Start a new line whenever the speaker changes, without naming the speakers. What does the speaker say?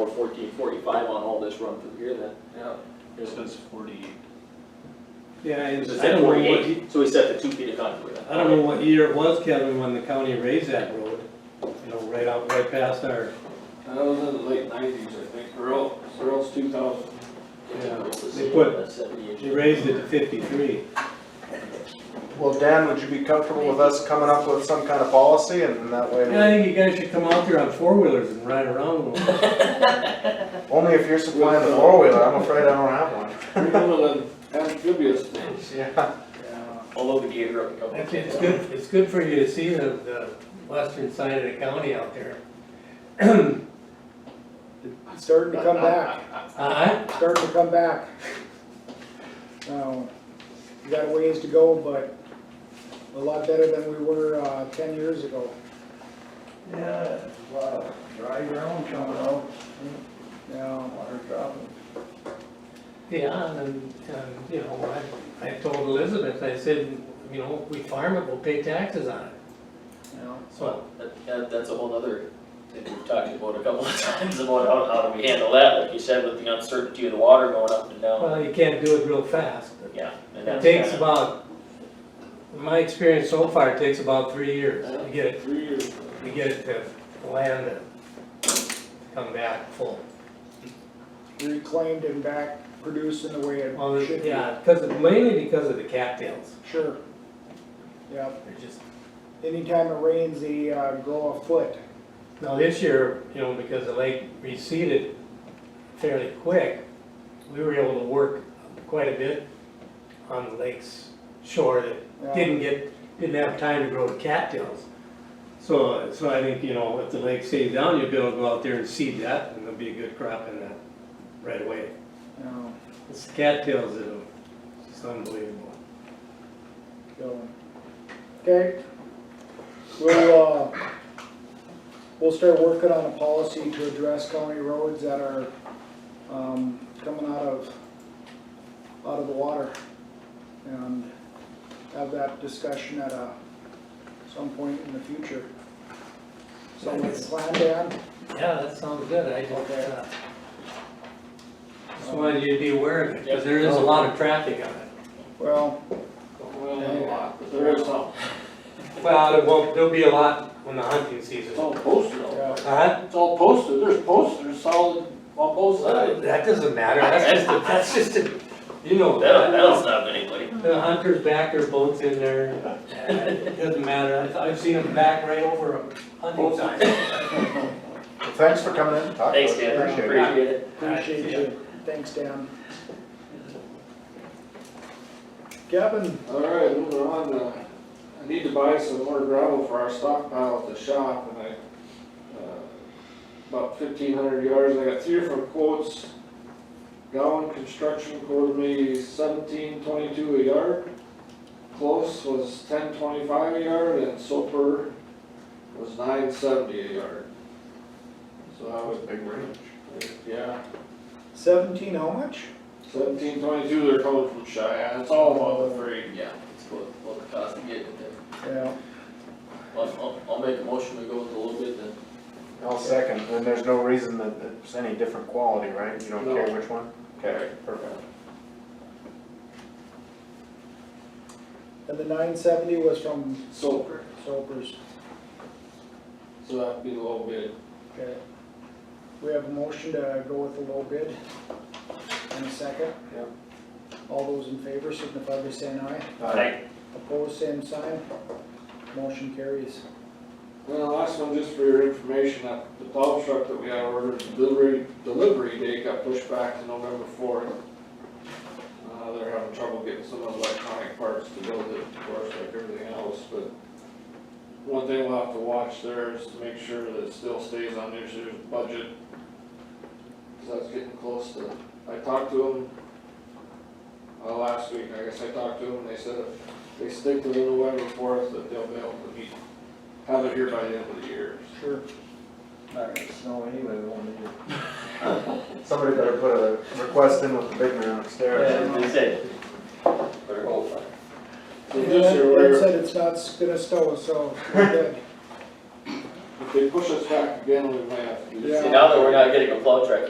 Or fourteen forty-five on all this run through here then.
Yeah.
It says forty-eight.
Yeah, I,
So
I
set
don't know what, ye-
forty-eight, so we set the two feet of conduit.
I don't know what year it was, Kevin, when the county raised that road. You know, right out, right past our,
That was in the late nineties, I think, Earl, Earl's two thousand.
yeah,
It's the
they
same,
put-
that's 70 inches.
they raised it to fifty-three.
Well, Dan, would you be comfortable with us coming up with some kind of policy and that
And I
way,
think you guys should come out there on four-wheelers and ride around. a little.
only if you're supplying the four-wheeler, I'm afraid I don't have one.
Criminal and amphibious things.
Yeah,
I'll load the gator up and come.
It's it's good, it's good for you to see the, the western side of the county out there. Uh-huh,
It's starting to come back,
Uh,
It's starting to come back. Now, we got a ways to go, but a lot better than we were, uh, ten years ago.
Yeah, a lot of dry ground coming out,
Now,
water dropping.
yeah, and, and, you know, I, I told Elizabeth, I said, you know, we farm it, we'll pay taxes on it,
now,
so.
That, that- that's a whole other thing we've talked about a couple of times about how, how do we handle that, like you said, with the uncertainty of the water going up and down.
Well, you can't do it real fast, but
Yeah. and
It
that's
takes
kinda-
about, in my experience so far, it takes about three years to get it,
Three years.
to get it to land and come back full.
reclaimed and back producing the way
Well,
it should be.
yeah, because, of- mainly because of the cattails,
Sure. Yep,
they're just,
anytime it rains, they, uh, grow a foot.
now this year, you know, because the lake receded fairly quick, we were able to work quite a bit on the lake's shore that
Now,
didn't get, didn't have time to grow the cattails. So, so I think, you know, if the lake stays down, you'll be able to go out there and seed that, and there'll be a good crop in that right away.
Now,
It's the cattails that are just unbelievable.
so, okay, we'll, uh, we'll start working on a policy to address county roads that are, um, coming out of, out of the water. And have that discussion at a, some point in the future. Someone can plan, Dan?
Yeah, that sounds good, I just,
Okay.
uh, just wanted you to be aware of it, because there is a lot of traffic on it.
Well,
Well, not a lot, but there is some.
Well, there won't, there'll be a lot when the hunting season. Uh-huh.
It's all posted, all
yeah,
right.
Huh?
It's all posted, there's posters solid on both sides.
That doesn't matter, that's just, a- that's just, a- you know.
That'll, that'll stop anybody.
The hunters back their boats in there, it doesn't matter, I've- I've seen them back right over a hunting sign.
Well, thanks for coming in and talking.
Thanks, Dan,
Appreciate it.
appreciate it.
appreciate you, thanks, Dan. Gavin,
All right, moving on, uh, I need to buy some more gravel for our stockpile at the shop, and I, uh, about fifteen hundred yards, I got three different quotes. Gowan Construction quoted me seventeen twenty-two a yard, Close was ten twenty-five a yard, and Soper was nine seventy a yard. So I
That was
was,
a big range.
yeah,
seventeen, how much?
seventeen twenty-two, they're coming from Cheyenne, it's all about the freight.
Yeah, it's what, what the cost of getting it there.
Yeah,
I'll, I'll, I'll make a motion to go with a little bit then.
I'll second, and there's no reason that it's any different quality, right? You don't
No.
care which one? Okay, perfect.
and the nine seventy was from
Soper.
Soper's,
So that'd be a little bit,
okay. We have a motion to go with the low bid in a second.
Yep.
All those in favor signify by saying aye, opposed, same sign, motion carries.
and the last one, just for your information, that the plow truck that we had ordered, delivery, delivery date got pushed back to November fourth. Uh, they're having trouble getting some of the electronic parts to build it, of course, like everything else, but one thing we'll have to watch there is to make sure that it still stays on this year's budget. Cause that's getting close to, I talked to them, uh, last week, I guess I talked to them, and they said if they stick to the November fourth, that they'll be able to meet have it here by the end of the year.
Sure.
Not gonna snow anyway, we won't need it.
Somebody better put a request in with the big man upstairs.
They said. Better go for it.
So
Yeah,
this year,
That
we're,
said, it's not s- gonna stow, so we're good.
if
if they push us back again, we might have to do
Yeah.
something.
See, now that we're not getting a plow truck,